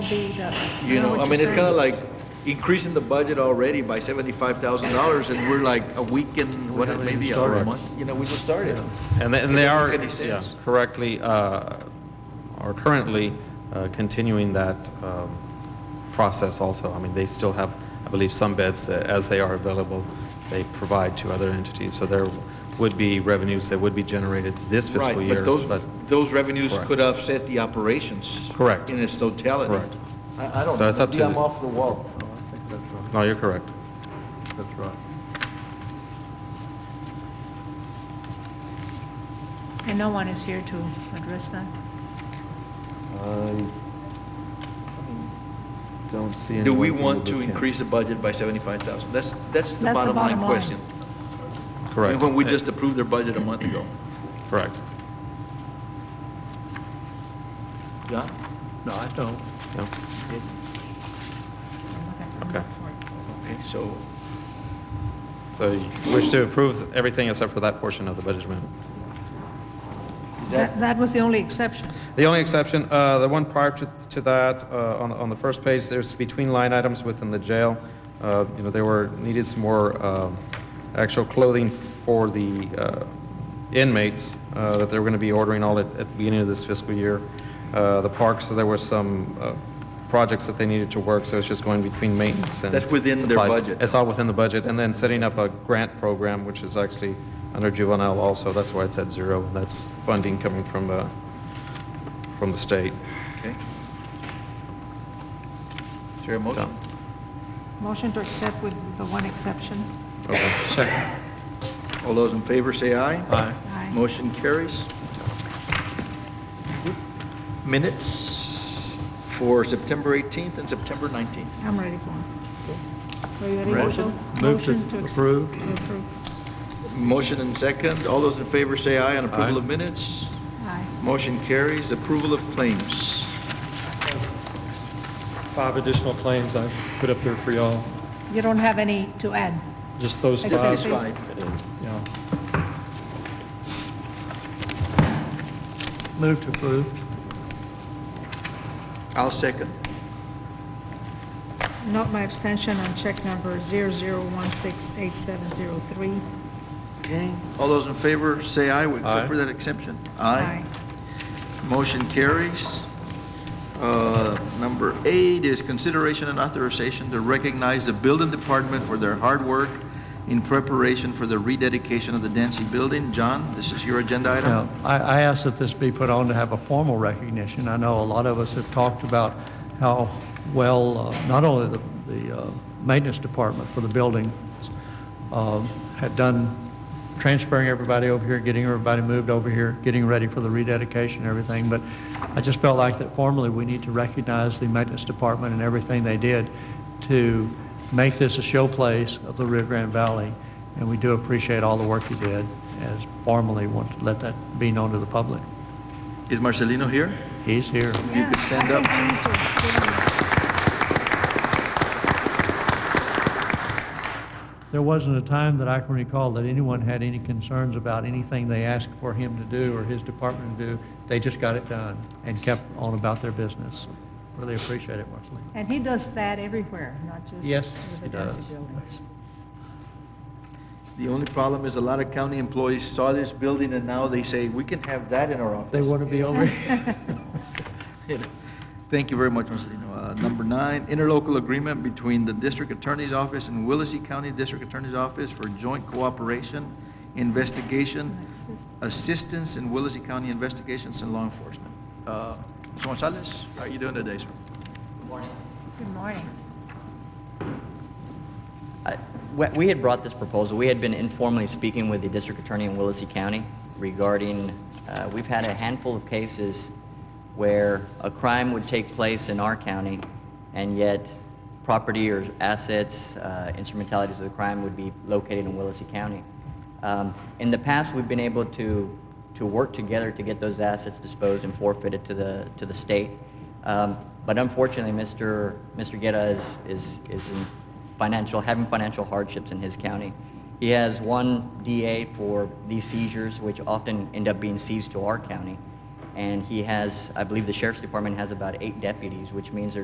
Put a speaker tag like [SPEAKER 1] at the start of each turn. [SPEAKER 1] be the.
[SPEAKER 2] You know, I
[SPEAKER 1] what
[SPEAKER 2] mean,
[SPEAKER 1] you're
[SPEAKER 2] it's kind of
[SPEAKER 1] saying.
[SPEAKER 2] like increasing the budget already by seventy-five thousand dollars, and we're like a week and, what,
[SPEAKER 3] haven't even
[SPEAKER 2] maybe a
[SPEAKER 3] started.
[SPEAKER 2] month, you know, we just started.
[SPEAKER 3] And they- and
[SPEAKER 2] It
[SPEAKER 3] they
[SPEAKER 2] doesn't
[SPEAKER 3] are,
[SPEAKER 2] make any
[SPEAKER 3] yeah,
[SPEAKER 2] sense.
[SPEAKER 3] correctly, uh, are currently uh, continuing that um, process also. I mean, they still have, I believe, some beds uh, as they are available, they provide to other entities. So there would be revenues that would be generated this
[SPEAKER 2] Right,
[SPEAKER 3] fiscal year.
[SPEAKER 2] but those, those revenues
[SPEAKER 3] Correct.
[SPEAKER 2] could offset the operations.
[SPEAKER 3] Correct.
[SPEAKER 2] In its totality.
[SPEAKER 3] Correct.
[SPEAKER 4] I, I don't,
[SPEAKER 3] So it's up
[SPEAKER 4] maybe
[SPEAKER 3] to
[SPEAKER 4] I'm
[SPEAKER 3] the-
[SPEAKER 4] off the wall. No, I think that's
[SPEAKER 3] No, you're correct.
[SPEAKER 4] right, that's right.
[SPEAKER 1] And no one is here to address that.
[SPEAKER 4] I don't see anyone.
[SPEAKER 2] Do we
[SPEAKER 4] from the
[SPEAKER 2] want to
[SPEAKER 4] book camp.
[SPEAKER 2] increase the budget by seventy-five thousand? That's, that's the
[SPEAKER 1] That's the
[SPEAKER 2] bottom line
[SPEAKER 1] bottom line.
[SPEAKER 2] question. I mean,
[SPEAKER 3] Correct.
[SPEAKER 2] When we just approved their budget a month ago.
[SPEAKER 3] Correct.
[SPEAKER 2] Yeah?
[SPEAKER 4] No, I don't.
[SPEAKER 3] Yeah. Okay.
[SPEAKER 2] Okay, so,
[SPEAKER 3] So you wish to approve everything except for that portion of the budget amendment?
[SPEAKER 2] is that,
[SPEAKER 1] That, that was the only exception.
[SPEAKER 3] The only exception, uh, the one prior to to that, uh, on on the first page, there's between line items within the jail. Uh, You know, there were, needed some more um, actual clothing for the uh, inmates uh, that they were going to be ordering all at at the beginning of this fiscal year. Uh, The parks, so there were some uh, projects that they needed to work, so it's just going between maintenance and...
[SPEAKER 2] That's within their
[SPEAKER 3] supplies.
[SPEAKER 2] budget.
[SPEAKER 3] It's all within the budget, and then setting up a grant program, which is actually under juvenile also. That's why it's at zero. That's funding coming from uh, from the state.
[SPEAKER 2] okay. Is there a motion?
[SPEAKER 1] Motion to accept with the one exception.
[SPEAKER 2] All those in favor say aye.
[SPEAKER 1] Aye.
[SPEAKER 2] Motion carries. Minutes for September 18th and September 19th.
[SPEAKER 1] I'm ready for it. Are you ready,
[SPEAKER 2] Ready.
[SPEAKER 1] Marshall?
[SPEAKER 4] Move to
[SPEAKER 1] Motion ex-
[SPEAKER 4] approve.
[SPEAKER 1] to approve.
[SPEAKER 2] Motion and second. All those in favor say aye on approval of minutes.
[SPEAKER 1] Aye.
[SPEAKER 2] Motion carries. Approval of claims.
[SPEAKER 5] Five additional claims I put up there for y'all,
[SPEAKER 1] You don't have any to add?
[SPEAKER 5] just those
[SPEAKER 1] Except
[SPEAKER 5] five.
[SPEAKER 1] this.
[SPEAKER 2] Satisfied.
[SPEAKER 5] Yeah.
[SPEAKER 4] Move to approve.
[SPEAKER 2] I'll second.
[SPEAKER 1] Note my abstention on check number 00168703.
[SPEAKER 2] Okay. All those in favor say aye, except for that exception. Aye. Motion carries. Uh, Number eight is consideration and authorization to recognize the building department for their hard work in preparation for the rededication of the Dancy Building. John, this is your agenda
[SPEAKER 6] Now,
[SPEAKER 2] item?
[SPEAKER 6] I, I asked that this be put on to have a formal recognition. I know a lot of us have talked about how well, uh, not only the, the uh, maintenance department for the building uh, had done transferring everybody over here, getting everybody moved over here, getting ready for the rededication and everything, but I just felt like that formally, we need to recognize the maintenance department and everything they did to make this a showplace of the Rio Grande Valley, and we do appreciate all the work you did, as formally want to let that be known to the public.
[SPEAKER 2] Is Marcelino here?
[SPEAKER 6] He's here.
[SPEAKER 2] You could stand up.
[SPEAKER 6] There wasn't a time that I can recall that anyone had any concerns about anything they asked for him to do or his department to do. They just got it done and kept on about their business. Really appreciate it, Marceline.
[SPEAKER 1] And he does that everywhere, not just
[SPEAKER 6] Yes,
[SPEAKER 1] with the
[SPEAKER 6] he
[SPEAKER 1] Dancy
[SPEAKER 6] does.
[SPEAKER 1] buildings.
[SPEAKER 2] The only problem is a lot of county employees saw this building and now they say, we can have that in our office.
[SPEAKER 6] They want to be over here.
[SPEAKER 2] Thank you very much, Marcelino. Uh, Number nine, interlocal agreement between the District Attorney's Office and Willacy County District Attorney's Office for joint cooperation, investigation, assistance in Willacy County investigations and law enforcement. Uh, Mr. Gonzalez, how are you doing today, sir?
[SPEAKER 1] Good morning.
[SPEAKER 7] I- we- We had brought this proposal, we had been informally speaking with the district attorney in Willacy County regarding, uh, we've had a handful of cases where a crime would take place in our county, and yet property or assets, uh, instrumentalities of the crime would be located in Willacy County. Um, In the past, we've been able to, to work together to get those assets disposed and forfeited to the, to the state. Um, But unfortunately, Mr. Mr. Guerra is, is, is in financial, having financial hardships in his county. He has one DA for these seizures, which often end up being seized to our county. And he has, I believe the sheriff's department has about eight deputies, which means there's